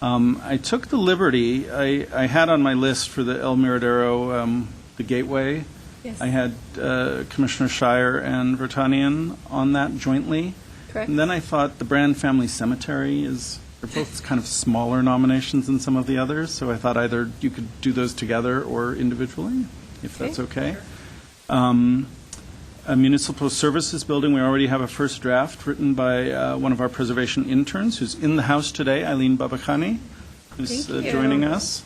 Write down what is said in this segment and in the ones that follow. Um, I took the liberty, I, I had on my list for the El Miradero, um, the Gateway. Yes. I had uh, Commissioner Shire and Vertanian on that jointly. Correct. And then I thought the Brand Family Cemetery is, they're both kind of smaller nominations than some of the others, so I thought either you could do those together or individually, if that's okay. Um, A municipal services building, we already have a first draft written by uh, one of our preservation interns, who's in the house today, Eileen Babakhani, who's uh, Thank you. joining us.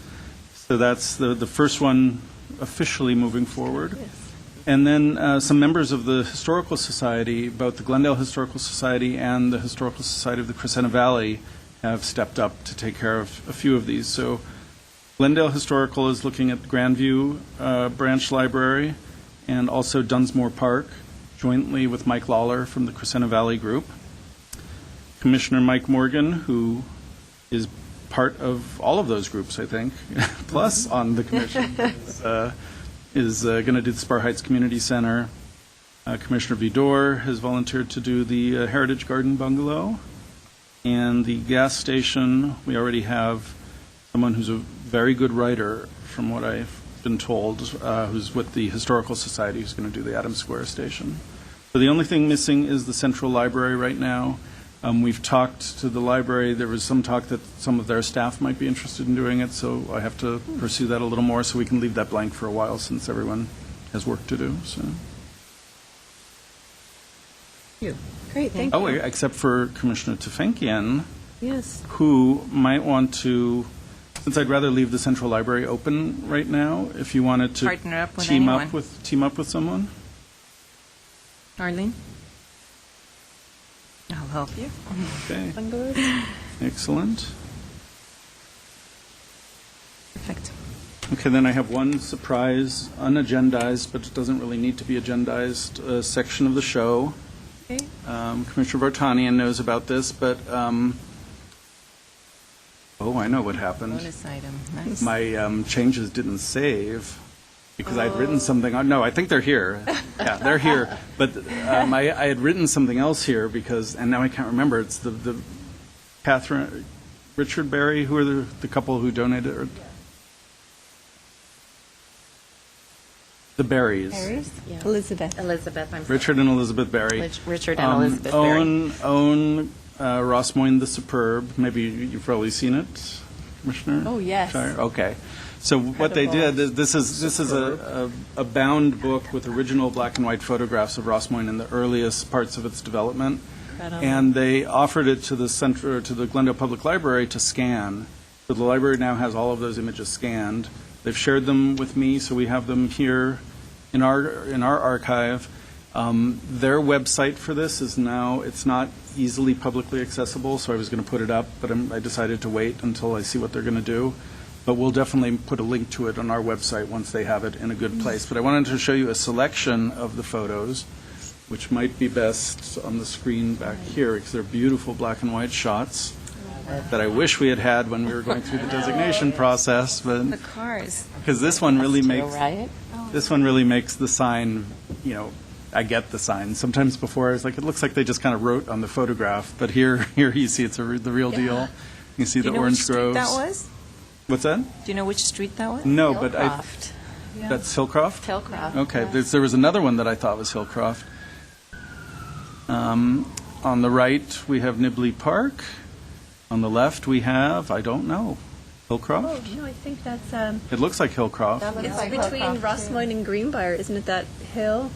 So that's the, the first one officially moving forward. And then uh, some members of the Historical Society, both the Glendale Historical Society and the Historical Society of the Crescenta Valley, have stepped up to take care of a few of these. So Glendale Historical is looking at Grandview uh, Branch Library and also Dunsmore Park, jointly with Mike Lawler from the Crescenta Valley Group. Commissioner Mike Morgan, who is part of all of those groups, I think, plus on the commission, is, uh, is going to do the Spar Heights Community Center. Uh, Commissioner Vidor has volunteered to do the uh, Heritage Garden Bungalow. And the gas station, we already have someone who's a very good writer, from what I've been told, uh, who's with the Historical Society, who's going to do the Adams Square Station. So the only thing missing is the Central Library right now. Um, We've talked to the library, there was some talk that some of their staff might be interested in doing it, so I have to pursue that a little more, so we can leave that blank for a while, since everyone has work to do, so. Great, thank Oh, you. except for Commissioner Tefankian, Yes, who might want to, since I'd rather leave the central library open right now, if you wanted to. Partner up with team anyone. with- Team up with someone? Arlene? I'll help you. Okay, bungalows? excellent. Perfect. Okay, then I have one surprise, unagendized, but it doesn't really need to be agendized, uh, section of the show. Okay. Um, Commissioner Vartanian knows about this, but, um, oh, I know what happened. Bonus item. Nice. My um, changes didn't save because I'd written something, on- no, I think they're here. Yeah, they're here. But um, I I had written something else here because, and now I can't remember, it's the- the Catherine, Richard Berry, who are the the couple who donated, or the Berries. Elizabeth. Elizabeth, I'm Richard and Elizabeth Berry. Rich- Richard and Um, Elizabeth Berry. Own, own uh, Ross Moyne the Superb. Maybe you- you've probably seen it, Commissioner? Oh, yes. Shire? Okay. So what they did, Incredible. is this is, this is a, a a bound book with original black and white photographs of Ross Moyne in the earliest parts of its development. Incredible. And they offered it to the center, to the Glendale Public Library to scan. So the library now has all of those images scanned. They've shared them with me, so we have them here in our, in our archive. Um, Their website for this is now, it's not easily publicly accessible, so I was going to put it up, but I'm- I decided to wait until I see what they're going to do. But we'll definitely put a link to it on our website once they have it in a good place. But I wanted to show you a selection of the photos, which might be best on the screen back here, because they're beautiful black and white shots that I wish we had had when we were going through the designation process, but, The cars. because this one really Studio makes, Riot. this one really makes the sign, you know, I get the sign. Sometimes before, I was like, it looks like they just kind of wrote on the photograph, but here, here you see it's a re- the real deal. You see Do the you know which orange street groves. that was? What's that? Do you know which street that was? No, but I, Hillcroft. that's Hillcroft? Hillcroft. Okay, there's, there was another one that I thought was Hillcroft. Um, on the right, we have Nibley Park. On the left, we have, I don't know, Hillcroft? Oh, No, I think that's, um, It looks like Hillcroft. it's between Rossmoyne and Greenbrier, isn't it that hill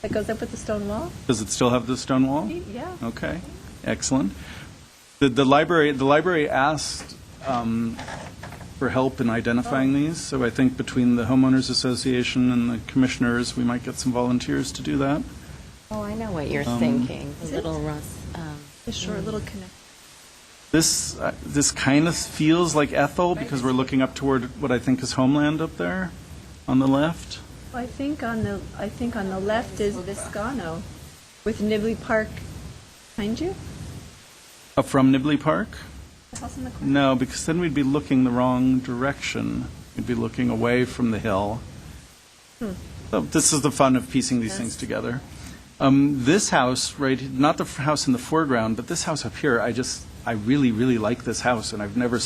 that goes up with the stone wall? Does it still have the stone wall? Yeah. Okay, excellent. The, the library, the library asked um, for help in identifying these, so I think between the homeowners association and the commissioners, we might get some volunteers to do that. Oh, I know what you're Um, thinking. Is it? Little Russ. Um, The short little connect. This, uh, this kind of feels like Ethel, because we're looking up toward what I think is homeland up there on the left. I think on the, I think on the left is Viscano with Nibley Park behind you, Up from Nibley Park? the house in the corner. No, because then we'd be looking the wrong direction. We'd be looking away from the hill. So this is the fun of piecing these things together. Um, this house, right, not the f- house in the foreground, but this house up here, I just, I really, really like this house, and I've never